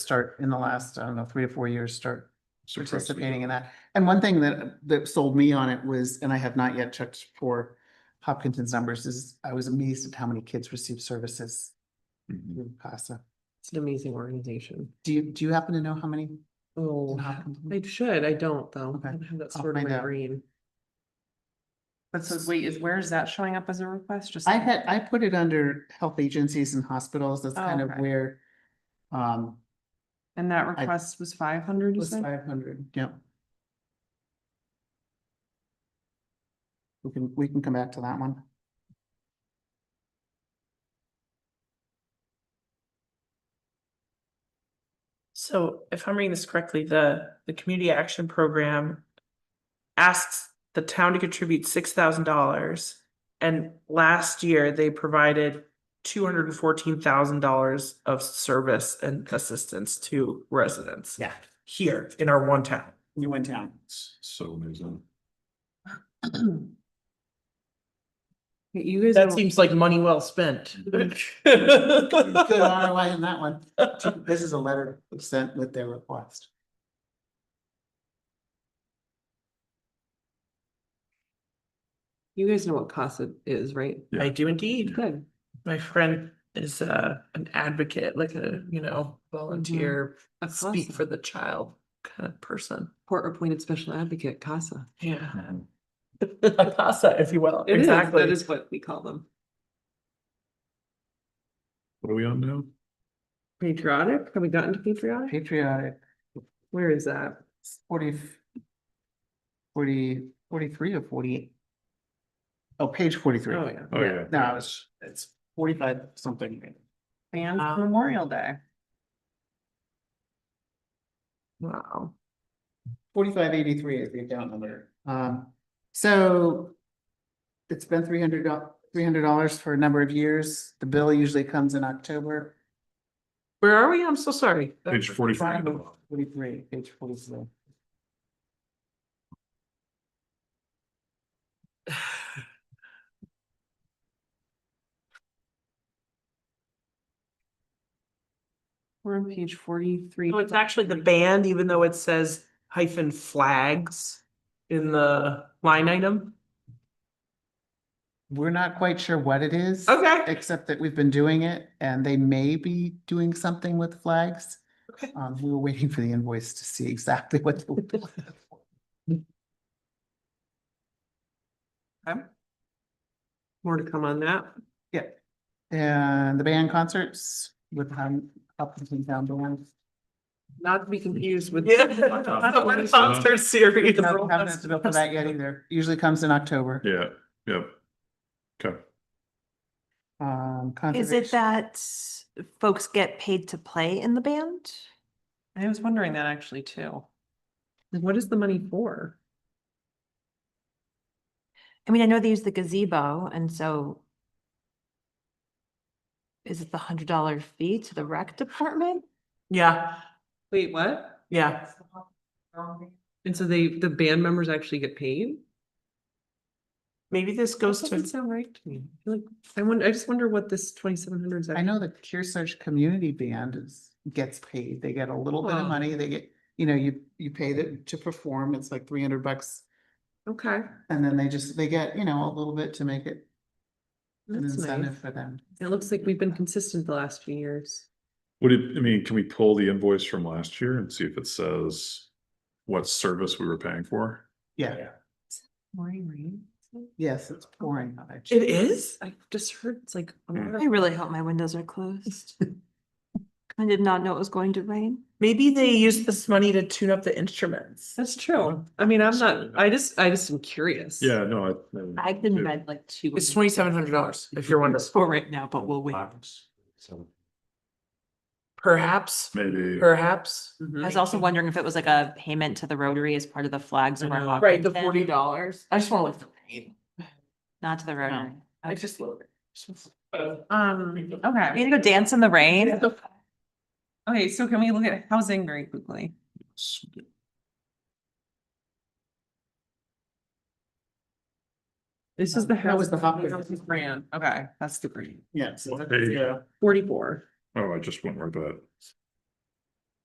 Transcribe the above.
start in the last, I don't know, three or four years, start suppress it. participating in that. And one thing that, that sold me on it was, and I have not yet checked for Hopkinton's numbers, is I was amazed at how many kids receive services Mhm. through CASA. It's an amazing organization. Do you, do you happen to know how many? in Oh, Hopkinton? I should, I don't though. Okay. I don't have that I'll stored in find my out. brain. But so wait, is, where is that showing up as a request? Just I had, I put it under health agencies and hospitals. That's Oh, kind of okay. where um, And that request was five hundred, it you was said? five hundred, yeah. We can, we can come back to that one. So if I'm reading this correctly, the, the community action program asks the town to contribute six thousand dollars. And last year, they provided two hundred and fourteen thousand dollars of service and assistance to residents. Yeah. Here in our one town. You went down. S- So there's a, You guys. That don't- seems like money well spent. Good ROI in that one. This is a letter sent with their request. You guys know what CASA is, right? I do indeed. Good. My friend is uh an advocate, like a, you know, volunteer, A speak CASA, for the child kind of person. court appointed special advocate, CASA. Yeah. A casa, if you will. It is, exactly. that is what we call them. what are we on now? Patriotic, have we gotten to patriotic? Patriotic, Where is that? forty, forty, forty-three or forty-eight? Oh, page forty-three. Oh, yeah. Oh, yeah. No, I was, it's forty-five something. Banned Uh, Ah. Memorial Day. Wow. Forty-five eighty-three is the account number. Um, so it's been three hundred three hundred dollars for a number of years. The bill usually comes in October. Where are we? I'm so sorry. Page forty-five. Forty-three, page forty-three. We're on page forty-three. So it's actually the band, even though it says hyphen flags in the line item. We're not quite sure what it is. Okay. Except that we've been doing it and they may be doing something with flags. Okay. Um, we were waiting for the invoice to see exactly what. they were doing. More to come on that. And the band concerts with um, Hopkinton Town Band. Not to be confused with. Yeah. Concert Concert series. No, Haven't had to bill for that yet either. Usually comes in October. Yeah, yep. Okay, Um. Is it conservation- that folks get paid to play in the band? I was wondering that actually too. What is the money for? I mean, I know they use the gazebo and so is it the hundred dollar fee to the rec department? Yeah, Wait, what? yeah. And so they, the band members actually get paid? Maybe this goes That to, doesn't sound right to me. I feel Like, I wonder, I just wonder what this twenty-seven hundred is. I know the Kearsarge Community Band is, gets paid. They get a little bit of Wow. money. They get, you know, you, you pay them to perform. It's like three hundred bucks. Okay, And then they just, they get, you know, a little bit to make it an that's nice. incentive for them. It looks like we've been consistent the last few years. would it, I mean, can we pull the invoice from last year and see if it says what service we were paying for? Yeah, Maureen Reed? yes, it's pouring. Oh I checked. it is? I just heard it's like. a Mm. lot I of- really hope my windows are closed. I did not know it was going to rain. Maybe they use this money to tune up the instruments. That's true. I mean, I'm not, I just, I just am curious. Yeah, no, I- I. I've been read like two. It's twenty-seven hundred dollars if you're wondering. For right now, but we'll wait. Perhaps, Maybe, perhaps. Mm-hmm. I was also wondering if it was like a payment to the Rotary as part of the flags I of our. know. Right, the Hopkinton, forty dollars. I just wanna look. Not to the Rotary. I just love it. Um, Are okay, you gonna go dance in the rain? okay, so can we look at housing very quickly? s- This is the. That was the housing- Hopkins. housing Grant, Okay, that's the green. Yeah. so What that's- page? yeah. forty-four. oh, I just went right to that.